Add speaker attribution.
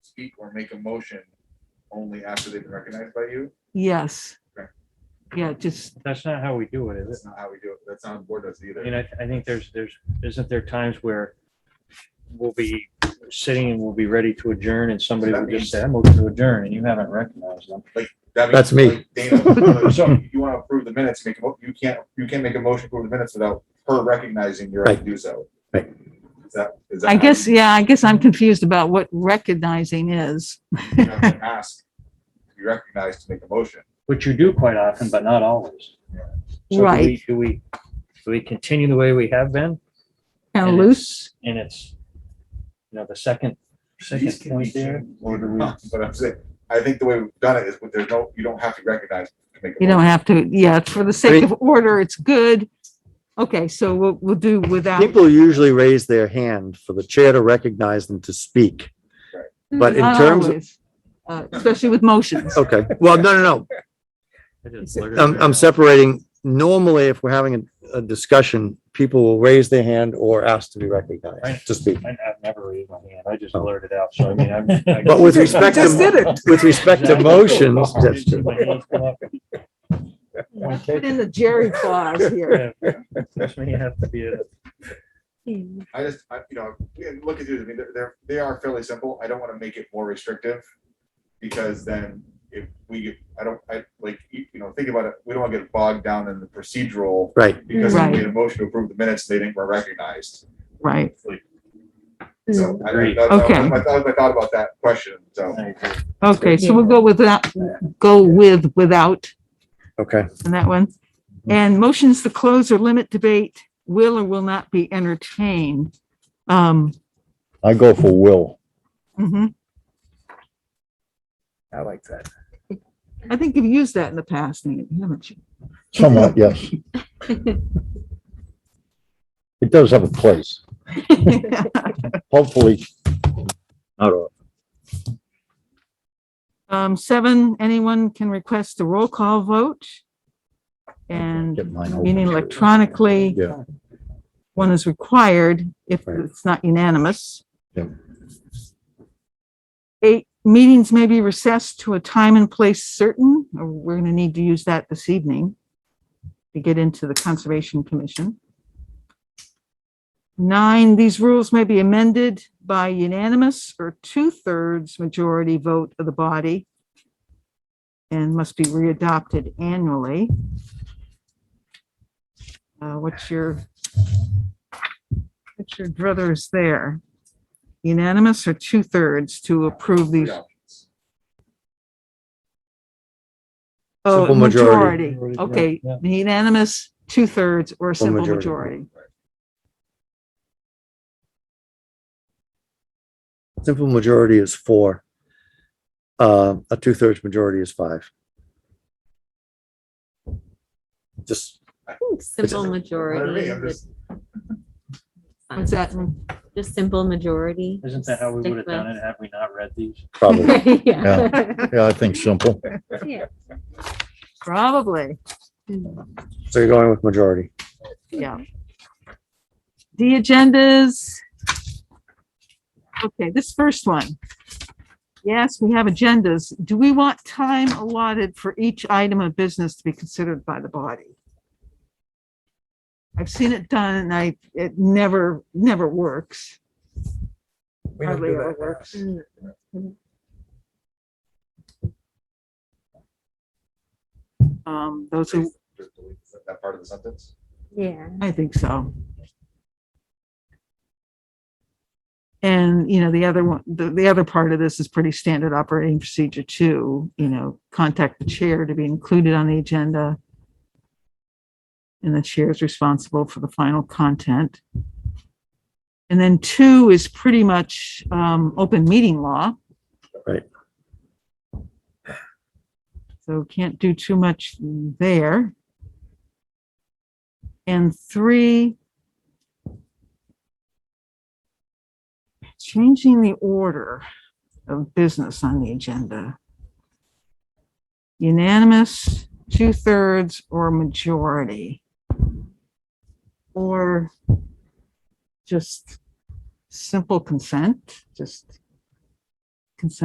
Speaker 1: speak or make a motion only after they've been recognized by you.
Speaker 2: Yes.
Speaker 1: Okay.
Speaker 2: Yeah, just,
Speaker 3: That's not how we do it, is
Speaker 1: That's
Speaker 3: it?
Speaker 1: not how we do it. That's not how the board does it
Speaker 3: I
Speaker 1: either.
Speaker 3: mean, I, I think there's, there's, isn't there times where we'll be sitting and we'll be ready to adjourn and somebody will just say, I'm looking to adjourn and you haven't recognized them.
Speaker 1: That means,
Speaker 4: That's me.
Speaker 1: like, Dana, so you want to approve the minutes, make a, mo- you can't, you can't make a motion to approve the minutes without her recognizing you're right to do so.
Speaker 4: Right.
Speaker 1: Is that, is that?
Speaker 2: I
Speaker 1: how
Speaker 2: guess,
Speaker 1: you-
Speaker 2: yeah, I guess I'm confused about what recognizing is.
Speaker 1: you have to Ask, to be recognized to make a motion.
Speaker 3: Which you do quite often, but not always.
Speaker 1: Yeah.
Speaker 3: So do
Speaker 2: Right.
Speaker 3: we- Do we, do we continue the way we have been?
Speaker 2: Kind of
Speaker 3: And
Speaker 2: loose.
Speaker 3: it's- And it's, you know, the second, second point there.
Speaker 1: But I'm saying, I think the way we've done it is, with there's no, you don't have to recognize to make a
Speaker 2: You don't
Speaker 1: motion.
Speaker 2: have to, yeah, for the sake of order, it's good. Okay, so we'll, we'll do without.
Speaker 4: People usually raise their hand for the chair to recognize them to speak. but in
Speaker 2: Not
Speaker 4: terms of-
Speaker 2: always, uh, Especially with motions.
Speaker 4: Okay, well, no, no, no, I'm, I'm separating. Normally, if we're having a, a discussion, people will raise their hand or ask to be recognized to speak.
Speaker 3: I- I've never raised my hand. I just blurted out. So I mean, I'm. I-
Speaker 4: Oh. But with respect
Speaker 2: Just did
Speaker 4: to,
Speaker 2: it.
Speaker 4: with respect to motions, that's true.
Speaker 3: My hands come up. My
Speaker 2: Put
Speaker 3: cake-
Speaker 2: in the Jerry clause here.
Speaker 3: That's when you have to be a-
Speaker 1: I just, I, you know, yeah, look at these, I mean, they're- they're, they are fairly simple. I don't want to make it more restrictive. Because then if we, I don't, I, like, you you know, think about it, we don't want to get bogged down in the procedural.
Speaker 4: Right,
Speaker 1: Because we
Speaker 2: Right.
Speaker 1: made a motion to approve the minutes, they didn't were recognized.
Speaker 2: Right.
Speaker 1: Like, So I,
Speaker 3: Agreed.
Speaker 1: that- that was
Speaker 2: Mm. Okay.
Speaker 1: my- that was my thought about that question, so.
Speaker 3: I agree.
Speaker 2: Okay, so we'll go with that, go with without
Speaker 4: okay.
Speaker 2: in that one. And motions to close or limit debate will or will not be entertained. Um,
Speaker 4: I go for will.
Speaker 2: mhm.
Speaker 5: I like that.
Speaker 2: I think you've used that in the past, Nate, haven't you?
Speaker 4: Somewhat, yes. It does have a place, hopefully. Not all.
Speaker 2: Um, seven, anyone can request a roll call vote. And
Speaker 4: Get mine over.
Speaker 2: meaning electronically,
Speaker 4: Yeah.
Speaker 2: one is required if
Speaker 4: Right.
Speaker 2: it's not unanimous.
Speaker 4: Yep.
Speaker 2: Eight, meetings may be recessed to a time and place certain, or we're gonna need to use that this evening to get into the Conservation Commission. Nine, these rules may be amended by unanimous or two-thirds majority vote of the body and must be readopted annually. Uh, what's your What's your druthers there? Unanimous or two-thirds to approve these?
Speaker 1: yeah.
Speaker 2: Oh,
Speaker 4: Simple majority.
Speaker 2: majority.
Speaker 3: Majority,
Speaker 2: Okay,
Speaker 3: yeah,
Speaker 2: unanimous, two-thirds, or a simple
Speaker 4: majority.
Speaker 2: majority.
Speaker 4: Simple majority is four. Uh, a two-thirds majority is five. Just,
Speaker 6: Simple
Speaker 1: What I
Speaker 6: majority.
Speaker 1: mean, I'm
Speaker 6: would
Speaker 1: just-
Speaker 6: fine.
Speaker 2: What's that?
Speaker 6: Just simple majority.
Speaker 3: Isn't that how we would have done it had we not read these?
Speaker 4: probably,
Speaker 6: it? Yeah.
Speaker 4: yeah, I think simple.
Speaker 6: Yeah.
Speaker 2: Probably,
Speaker 4: So you're going with majority.
Speaker 2: yeah. The agendas. Okay, this first one. Yes, we have agendas. Do we want time allotted for each item of business to be considered by the body? I've seen it done and I, it never, never works.
Speaker 5: We don't
Speaker 2: Hardly
Speaker 5: do
Speaker 2: ever
Speaker 5: that.
Speaker 2: works.
Speaker 6: Mm.
Speaker 2: Um, those who,
Speaker 1: Just delete That part of the sentence.
Speaker 6: Yeah.
Speaker 2: I think so. And, you know, the other one, the, the other part of this is pretty standard operating procedure too, you know, contact the chair to be included on the agenda. And the chair is responsible for the final content. And then two is pretty much, um, open meeting law.
Speaker 4: Right.
Speaker 2: So can't do too much there. And three, changing the order of business on the agenda. Unanimous, two-thirds, or majority. Or just simple consent, just